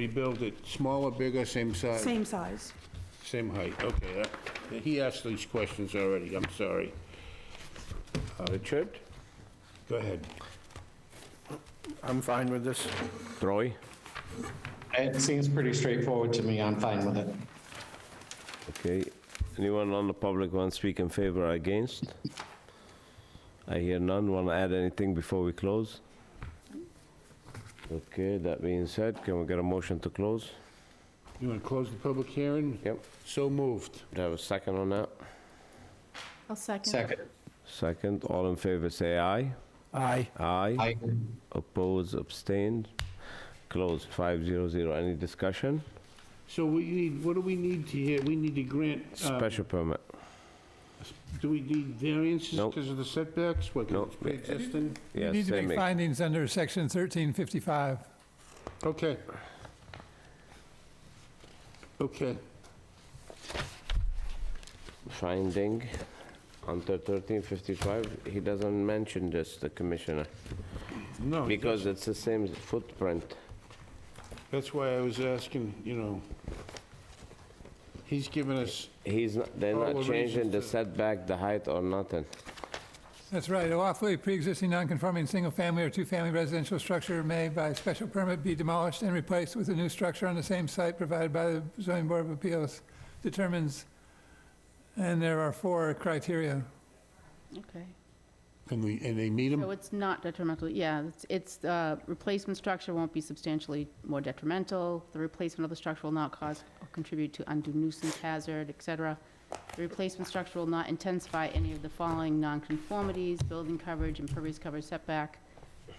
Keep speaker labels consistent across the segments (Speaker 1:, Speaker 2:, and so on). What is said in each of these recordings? Speaker 1: Rebuild it, smaller, bigger, same size?
Speaker 2: Same size.
Speaker 1: Same height, okay. that- He asked these questions already, I'm sorry. Uh, Richard? Go ahead.
Speaker 3: I'm fine with this.
Speaker 4: Troy?
Speaker 5: It seems pretty straightforward to me. I'm fine with it.
Speaker 4: Okay. Anyone on the public want to speak in favor or against? I hear none. Want to add anything before we close? Okay, that being said, can we get a motion to close?
Speaker 1: You want to close the public hearing?
Speaker 4: Yep.
Speaker 1: So moved.
Speaker 4: Do I have a second on that?
Speaker 2: I'll second.
Speaker 5: Second.
Speaker 4: Second, all in favor, say aye.
Speaker 3: Aye.
Speaker 4: Aye.
Speaker 5: I,
Speaker 4: Oppose, abstained. Closed, 500. Any discussion?
Speaker 1: So we need, what do we need to hear? We need to grant, uh,
Speaker 4: Special permit.
Speaker 1: do we need variances
Speaker 4: Nope.
Speaker 1: because of the setbacks? What, 'cause
Speaker 4: Nope.
Speaker 1: it's pre-existing?
Speaker 6: You
Speaker 4: Yes,
Speaker 6: need to
Speaker 4: they
Speaker 6: make
Speaker 4: make-
Speaker 6: findings under section 1355.
Speaker 1: Okay. Okay.
Speaker 4: finding under 1355, he doesn't mention this, the commissioner,
Speaker 1: No,
Speaker 4: because it's the same footprint.
Speaker 1: that's why I was asking, you know, he's given us,
Speaker 4: He's, not- they're
Speaker 1: All
Speaker 4: not
Speaker 1: the
Speaker 4: changing
Speaker 1: Oh, reasons
Speaker 4: the
Speaker 1: to-
Speaker 4: setback, the height, or nothing.
Speaker 6: That's right. A lawfully pre-existing non-conforming single-family or two-family residential structure may by special permit be demolished and replaced with a new structure on the same site provided by the zoning board of appeals determines, and there are four criteria.
Speaker 7: Okay,
Speaker 1: and we- and they meet him?
Speaker 7: so it's not detrimental, yeah, it's, it's, uh, replacement structure won't be substantially more detrimental, the replacement of the structure will not cause or contribute to undue nuisance hazard, et cetera. The replacement structure will not intensify any of the following nonconformities, building coverage, impervious coverage setback.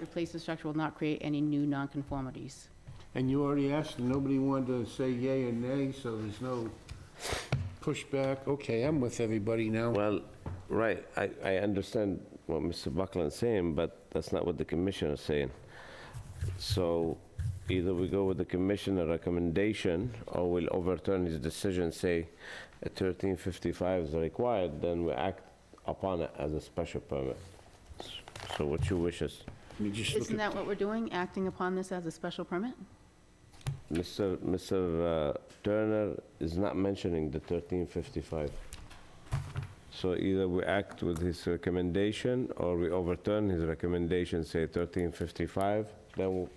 Speaker 7: Replacement structure will not create any new nonconformities.
Speaker 1: And you already asked, and nobody wanted to say yay or nay, so there's no pushback. Okay, I'm with everybody now.
Speaker 4: Well, right, I, I understand what Mr. Buckland's saying, but that's not what the commissioner's saying. So either we go with the commissioner recommendation, or we'll overturn his decision, say a 1355 is required, then we act upon it as a special permit. So what's your wishes?
Speaker 1: Let me just look
Speaker 7: Isn't
Speaker 1: at-
Speaker 7: that what we're doing, acting upon this as a special permit?
Speaker 4: Mr. Mr. uh, Turner is not mentioning the 1355. So either we act with his recommendation, or we overturn his recommendation, say 1355, then we'll-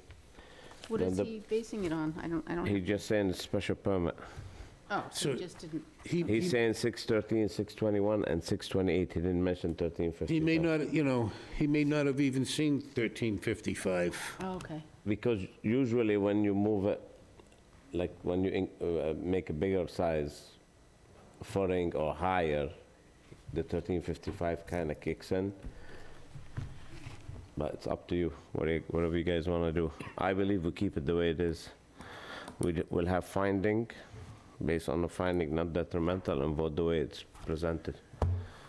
Speaker 7: What
Speaker 4: Then
Speaker 7: is
Speaker 4: the-
Speaker 7: he basing it on? I don't, I
Speaker 4: he
Speaker 7: don't,
Speaker 4: just saying it's special permit.
Speaker 7: oh, so he
Speaker 1: So-
Speaker 7: just didn't,
Speaker 1: He,
Speaker 4: He's
Speaker 1: he-
Speaker 4: saying 613, 621, and 628, he didn't mention
Speaker 1: he may
Speaker 4: 1355.
Speaker 1: not, you know, he may not have even seen 1355.
Speaker 7: oh, okay.
Speaker 4: Because usually when you move it, like when you in- uh, make a bigger size, footing or higher, the 1355 kind of kicks in. But it's up to you, what you- whatever you guys want to do. I believe we keep it the way it is. We d- will have finding, based on the finding not detrimental, and vote the way it's presented.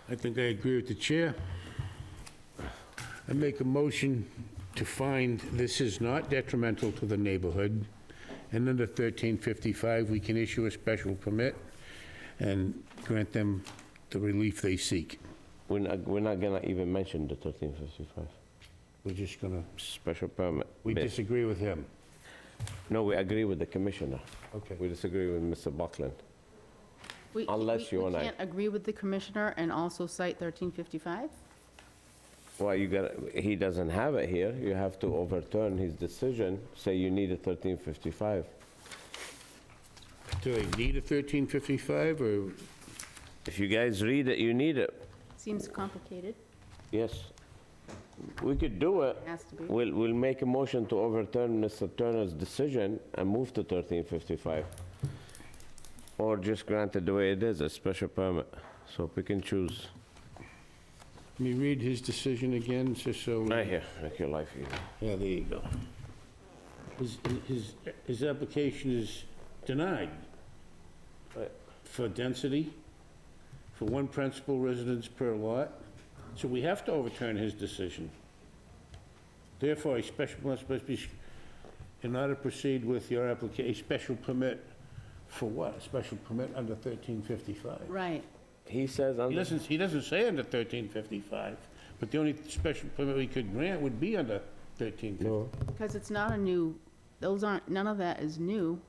Speaker 1: I think I agree with the chair. I make a motion to find this is not detrimental to the neighborhood, and under 1355, we can issue a special permit and grant them the relief they seek.
Speaker 4: We're not, we're not gonna even mention the 1355
Speaker 1: We're just gonna,
Speaker 4: special permit.
Speaker 1: we
Speaker 4: bit.
Speaker 1: disagree with him.
Speaker 4: No, we agree with the commissioner.
Speaker 1: Okay.
Speaker 4: We disagree with Mr. Buckland.
Speaker 7: We-
Speaker 4: Unless
Speaker 7: we-
Speaker 4: you and I-
Speaker 7: We can't agree with the commissioner and also cite 1355?
Speaker 4: Well, you got, he doesn't have it here, you have to overturn his decision, say you need a 1355.
Speaker 1: Do they need a 1355, or,
Speaker 4: If you guys read it, you need it,
Speaker 7: Seems complicated,
Speaker 4: yes. We could do it.
Speaker 7: has to be.
Speaker 4: We'll, we'll make a motion to overturn Mr. Turner's decision and move to 1355. Or just grant it the way it is, a special permit, so we can choose.
Speaker 1: let me read his decision again, just so...
Speaker 4: Right here, make your life easy.
Speaker 1: Yeah, there you go. His, his, his application is denied for density, for one principal residence per lot, so we have to overturn his decision. Therefore, a special permit must be, in order to proceed with your application, a special permit for what? A special permit under 1355?
Speaker 7: Right.
Speaker 4: He says on
Speaker 1: He doesn't, he doesn't say under 1355, but the only special permit we could grant would be under 1355.
Speaker 7: Because it's not a new those aren't, none of that is new.